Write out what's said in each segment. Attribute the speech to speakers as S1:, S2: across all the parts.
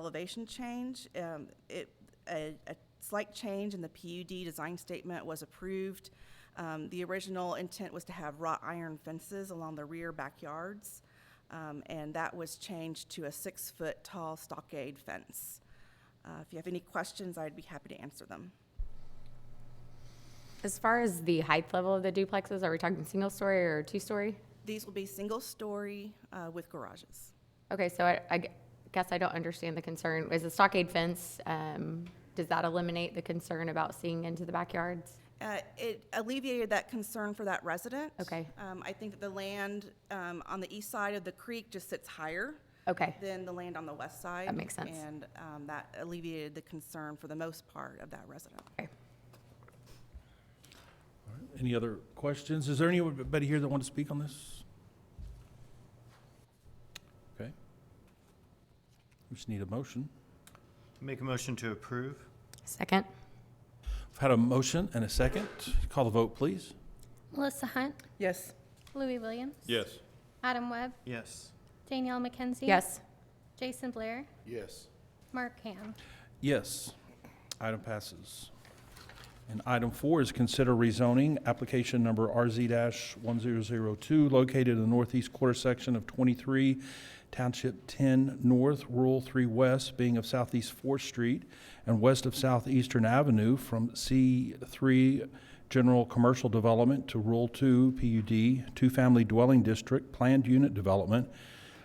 S1: elevation change. Um, It, a a slight change in the PUD design statement was approved. Um, The original intent was to have wrought iron fences along the rear backyards, um, and that was changed to a six-foot tall stockade fence. Uh, If you have any questions, I'd be happy to answer them.
S2: As far as the height level of the duplexes, are we talking single story or two story?
S1: These will be single-story uh, with garages.
S2: Okay, so I, I gu- guess I don't understand the concern. Is the stockade fence, um, does that eliminate the concern about seeing into the backyards?
S1: Uh, It alleviated that concern for that resident.
S2: Okay.
S1: Um, I think that the land um, on the east side of the creek just sits higher
S2: Okay,
S1: than the land on the west side.
S2: That makes sense.
S1: And um, that alleviated the concern for the most part of that resident.
S2: okay.
S3: Any other questions? Is there anybody here that want to speak on this? Okay. We just need a motion.
S4: Make a motion to approve?
S2: Second?
S3: I've had a motion and a second. Call the vote, please.
S5: Melissa Hunt,
S1: Yes.
S5: Louis Williams.
S6: Yes.
S5: Adam Webb,
S4: Yes.
S5: Danielle McKenzie.
S2: Yes.
S5: Jason Blair,
S6: Yes.
S5: Mark Ham.
S3: Yes. Item passes. And item four is consider rezoning, application number RZ-1002, located in the northeast quarter section of 23, Township 10 North, Rural 3 West, being of southeast 4th Street and west of southeastern Avenue from C3 General Commercial Development to Rural 2 PUD, two-family dwelling district, planned unit development,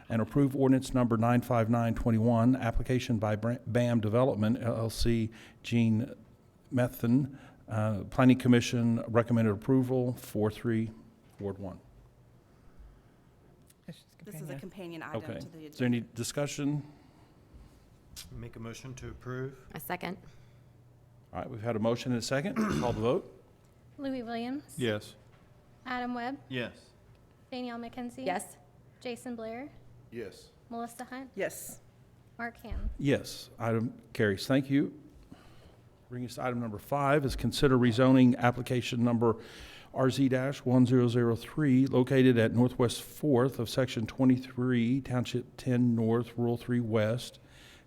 S3: and approve ordinance number 95921, application by Bra- BAM Development LLC, Gene Methan. Uh, Planning Commission recommended approval, 4-3, Ward 1.
S1: This is a companion item
S3: Okay.
S1: to the
S3: Is there
S1: agenda.
S3: any discussion?
S4: Make a motion to approve?
S2: A second?
S3: All right, we've had a motion and a second. Call the vote.
S5: Louis Williams.
S6: Yes.
S5: Adam Webb,
S4: Yes.
S5: Danielle McKenzie. Jason Blair,
S6: Yes.
S5: Melissa Hunt,
S1: Yes.
S5: Mark Ham.
S3: Yes, item carries. Thank you. Bringing us to item number five is consider rezoning application number RZ-1003, located at Northwest Fourth of Section 23, Township 10 North, Rural 3 West,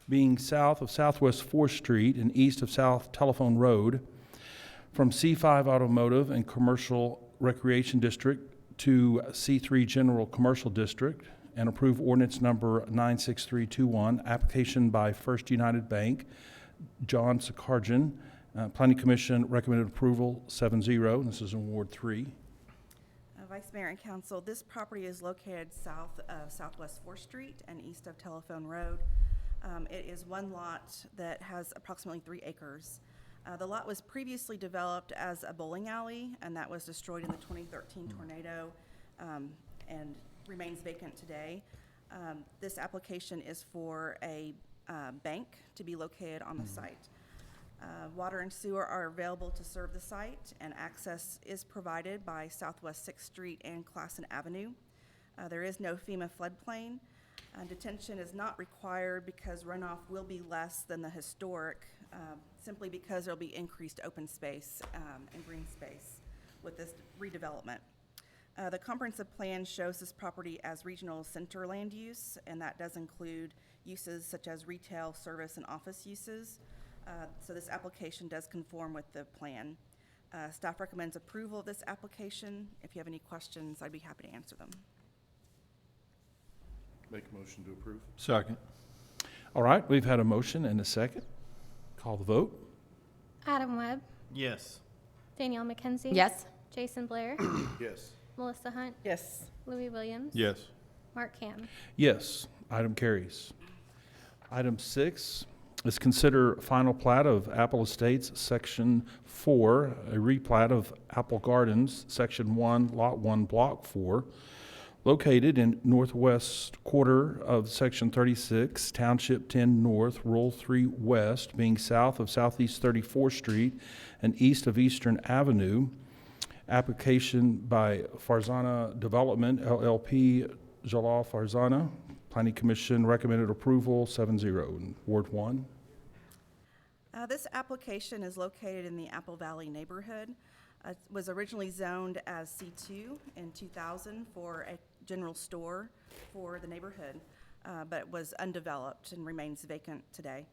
S3: being south of Southwest Fourth Street and east of South Telephone Road, from C5 Automotive and Commercial Recreation District to C3 General Commercial District, and approve ordinance number 96321, application by First United Bank, John Sakarjan. Uh, Planning Commission recommended approval 7-0, and this is in Ward 3.
S1: Uh, Vice Mayor and Council, this property is located south of Southwest Fourth Street and east of Telephone Road. Um, It is one lot that has approximately three acres. Uh, The lot was previously developed as a bowling alley, and that was destroyed in the 2013 tornado um, and remains vacant today. Um, This application is for a uh, bank to be located on the site. Uh, Water and sewer are available to serve the site, and access is provided by Southwest Sixth Street and Classen Avenue. Uh, There is no FEMA floodplain. Uh, Detention is not required because runoff will be less than the historic, um, simply because there'll be increased open space um, and green space with this redevelopment. Uh, The comprehensive plan shows this property as regional center land use, and that does include uses such as retail, service, and office uses. Uh, So this application does conform with the plan. Uh, Staff recommends approval of this application. If you have any questions, I'd be happy to answer them.
S6: Make a motion to approve?
S3: Second. All right, we've had a motion and a second. Call the vote.
S5: Adam Webb,
S4: Yes.
S5: Danielle McKenzie.
S2: Yes?
S5: Jason Blair,
S6: Yes.
S5: Melissa Hunt,
S1: Yes.
S5: Louis Williams.
S6: Yes.
S5: Mark Ham.
S3: Yes, item carries. Item six is consider final plat of Apple Estates, Section 4, a replat of Apple Gardens, Section 1, Lot 1, Block 4, located in northwest quarter of Section 36, Township 10 North, Rural 3 West, being south of Southeast 34th Street and east of Eastern Avenue, application by Farzana Development LLP, Jalal Farzana. Planning Commission recommended approval, 7-0. Ward 1?
S1: Uh, This application is located in the Apple Valley neighborhood. Uh, It was originally zoned as C2 in 2000 for a general store for the neighborhood. uh, but was undeveloped and remains vacant today.